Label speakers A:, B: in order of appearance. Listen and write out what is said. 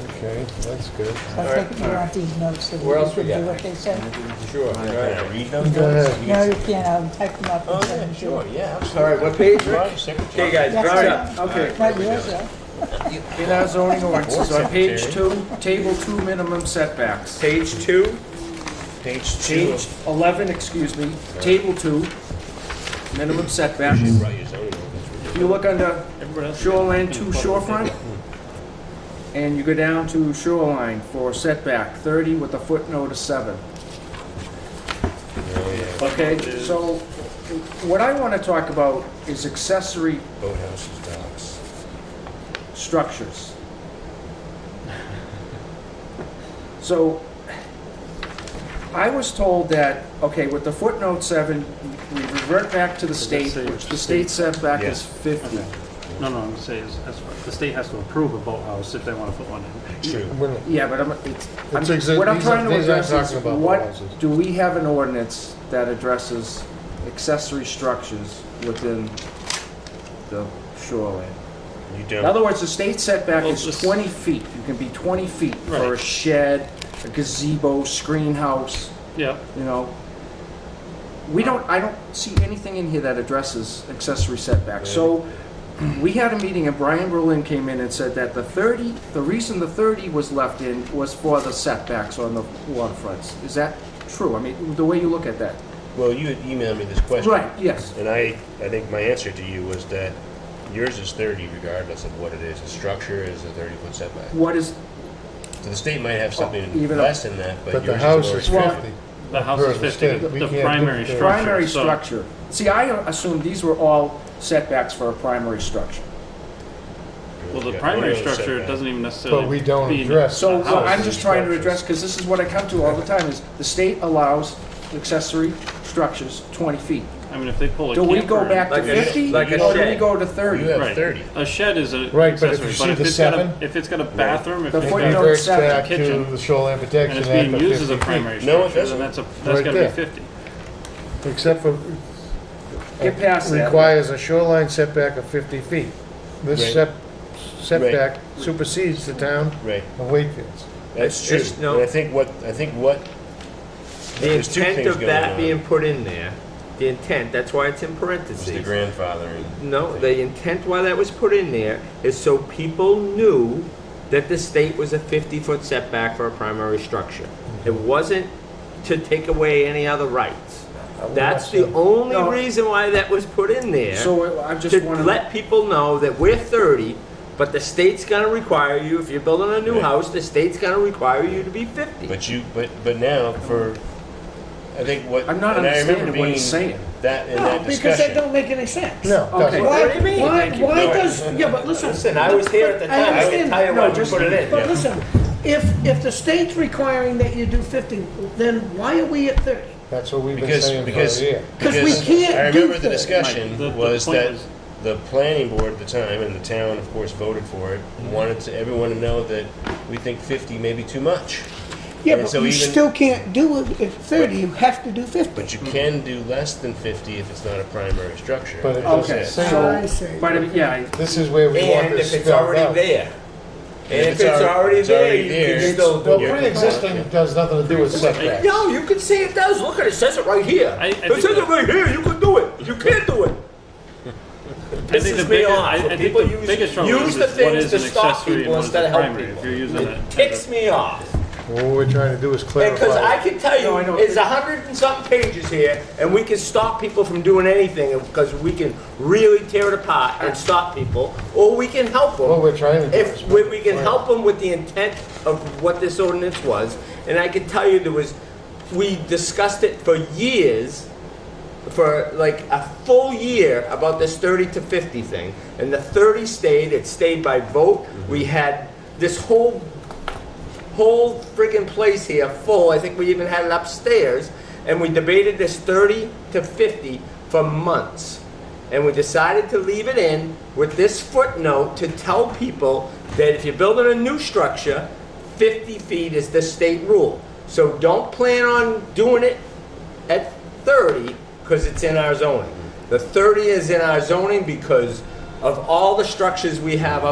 A: Okay, that's good.
B: So I think you want these notes so
C: Where
B: that
C: else
B: you
C: we
B: can do
C: got?
B: what they said.
C: Sure,
D: Can I
C: right.
D: read those?
A: Go
D: notes?
A: ahead.
D: We
B: No,
D: can-
B: you can't, I'll type them up and
D: Oh,
B: send
D: yeah,
B: them to
D: sure,
B: you.
D: yeah, absolutely.
C: All right, what page, Rick?
D: Right, secretary.
C: Okay, guys,
B: That's
C: all
B: right.
C: right, okay.
B: Not yours, though.
E: In our zoning ordinances, on page
D: Secretary.
E: two, table two minimum setbacks.
C: Page two,
D: Page two.
E: Page eleven, excuse me, table two, minimum setbacks.
D: Right, your zoning ordinance.
E: If you look under
D: Everybody else-
E: shoreline to shorefront, and you go down to shoreline for setback thirty with a footnote of seven. Okay, so what I wanna talk about is accessory
D: Boathouses, docks.
E: structures. So, I was told that, okay, with the footnote seven, we revert back to the state,
F: say
E: which
F: which
E: the state setback is
D: Yes.
E: fifty.
F: No, no, I'm saying, is- that's what- the state has to approve a boathouse if they want to put one in.
D: True.
A: We're not-
E: Yeah, but I'm, it's, I'm-
A: It's exa-
E: what I'm
A: these are-
E: trying to
A: these aren't
E: address is,
A: talking about
E: what,
A: houses.
E: do we have an ordinance that addresses accessory structures within the shoreline?
D: You
E: In
D: don't.
E: other words, the state setback
F: Well,
E: is
F: just-
E: 20 feet. You can be 20 feet for a
F: Right.
E: shed, a gazebo, screen house,
F: Yeah,
E: you know. We don't, I don't see anything in here that addresses accessory setbacks. So we had a meeting and Brian Berlin came in and said that the 30, the reason the 30 was left in was for the setbacks on the waterfronts. Is that true? I mean, the way you look at that.
D: Well, you had emailed me this question.
E: Right, yes.
D: And I, I think my answer to you was that yours is thirty regardless of what it is. The structure is a thirty-foot setback.
E: What is,
D: So the state might have
E: Oh,
D: something
E: even a-
D: less than that, but
A: But the
D: yours
A: house is
D: is already
A: fifty.
F: the house
A: Per
F: is
A: the
F: 50,
A: state,
F: the
A: we
F: the
A: can't
F: primary
A: do-
F: structure.
E: primary
F: so-
E: structure. See, I assumed these were all setbacks for a primary structure.
D: fifty.
F: Well, the
D: Yeah,
F: primary
D: what are those
F: structure
D: setbacks?
F: doesn't even necessarily.
A: But we don't
F: be-
A: address.
E: So what I'm
F: Houses,
E: just trying to
D: structures.
E: address, because this is what I come to all the time, is the state allows accessory structures 20 feet.
F: I mean, if they pull a
E: Do
F: camper.
E: we go back to
C: Like a-
E: 50, or
C: like a
E: do we
C: shed.
E: go to
D: You
E: 30?
D: have
F: Right.
D: thirty.
F: A shed is a
A: Right, but if
F: accessory,
A: you see
F: but if
A: the
F: it's got a,
A: seven-
F: if it's got a bathroom, if
E: The
F: it's
E: footnote
F: got,
A: Reverts
E: seven,
A: back to
F: kitchen.
A: the Shoreline Protection
F: and
A: Act
F: it's being
A: of
F: used as
A: 50
F: a primary
A: feet,
D: No, it
F: structure, then
D: doesn't.
F: that's a, that's
A: Right
F: gotta be
A: there.
F: fifty.
A: Except for,
E: Get past that.
A: requires a shoreline setback of fifty feet. This
D: Right.
A: sep- setback supersedes the town
D: Right.
A: of Wakefield's.
D: That's
C: It's
D: true.
C: just no-
D: And I think what, I think what,
C: the
D: There's two
C: intent
D: things
C: of that
D: going on.
C: being put in there, the intent, that's why it's in
D: is the
C: parentheses.
D: grandfathering.
C: No, the intent why that was put in there is so people knew that the state was a 50-foot setback for a primary structure. It
D: Mm-hmm.
C: wasn't to take away any other
D: Uh,
C: rights. That's the only
E: No.
C: reason why that was put in there.
E: So I just
C: To
E: want
C: let people know that we're 30, but the state's gonna require you, if you're building a new
D: Right.
C: house, the state's gonna require you to be 50.
D: But you, but, but now for, I think what.
E: I'm not
D: and I remember
E: understanding what he's
D: being
E: saying.
D: That, in
G: No,
D: that
G: because that
D: discussion.
G: don't make any sense.
A: No, it
E: Okay.
A: doesn't.
G: Why,
C: What do you mean?
G: why,
C: Thank you.
G: why
D: No,
G: does, yeah, but listen.
C: Listen, I was here at the
G: I
C: time, I can
G: understand.
C: tell you
E: No,
C: why we
E: just-
C: put it in.
G: But listen, if, if the state's requiring that you do fifty, then why are we at thirty?
A: That's what we've been
D: Because,
A: saying for
D: because.
A: a year.
G: Because we can't
D: I remember the
G: do that.
F: Right, the-
D: discussion
F: the
D: was
F: point
D: that
F: was-
D: the planning board at the time, and the town, of course, voted for it, wanted to, everyone to know that we think fifty may be too much.
G: Yeah,
D: And
G: but
D: so
G: you
D: even-
G: still can't do it at thirty, you have to do fifty.
D: But you can do less than fifty if it's not a primary structure.
A: But it
E: Okay,
A: doesn't
E: so,
A: say,
G: I see.
E: but I mean, yeah, I-
A: this is where we want
C: And
A: this
C: if it's
A: spelled
C: already
A: out.
C: there. And if it's
D: al-
C: already
D: it's
C: there,
D: already
C: you
D: there,
C: can still
A: Well,
C: do it.
D: you're-
A: pre-existing does nothing to do with setbacks.
C: No, you can see it does. Look at it. It says it right here.
F: I- I
C: it
F: think
C: says it
F: that-
C: right here. You can do it. You can't do it.
F: I think
C: Pisses
F: the
C: me
F: biggest,
C: off
F: I, I
C: when
F: think
C: people
F: the
C: use-
F: biggest trouble
C: use
F: is
C: the
F: is what
C: things
F: is
C: to
F: an
C: stop
F: accessory and
C: people
F: what is
C: instead
F: a
C: of help
F: primary, if
C: people.
F: you're using it.
C: It ticks me off.
A: What we're trying to do is
C: Because I
A: clarify.
C: can tell
E: No, I
C: you,
E: know.
C: it's a hundred and something pages here, and we can stop people from doing anything because we can really tear it apart and stop people, or we can help them.
A: What we're trying to do is.
C: if we, we can
A: Right.
C: help them with the intent of what this ordinance was, and I can tell you there was, we discussed it for years, for like a full year about this thirty to fifty thing, and the thirty stayed. It stayed by vote. We had this whole whole friggin' place here full. I think we even had it upstairs, and we debated this 30 to 50 for months. And we decided to leave it in with this footnote to tell people that if you're building a new structure, 50 feet is the state rule. So don't plan on doing it at 30 because it's in our zoning. The 30 is in our zoning because of all the structures we have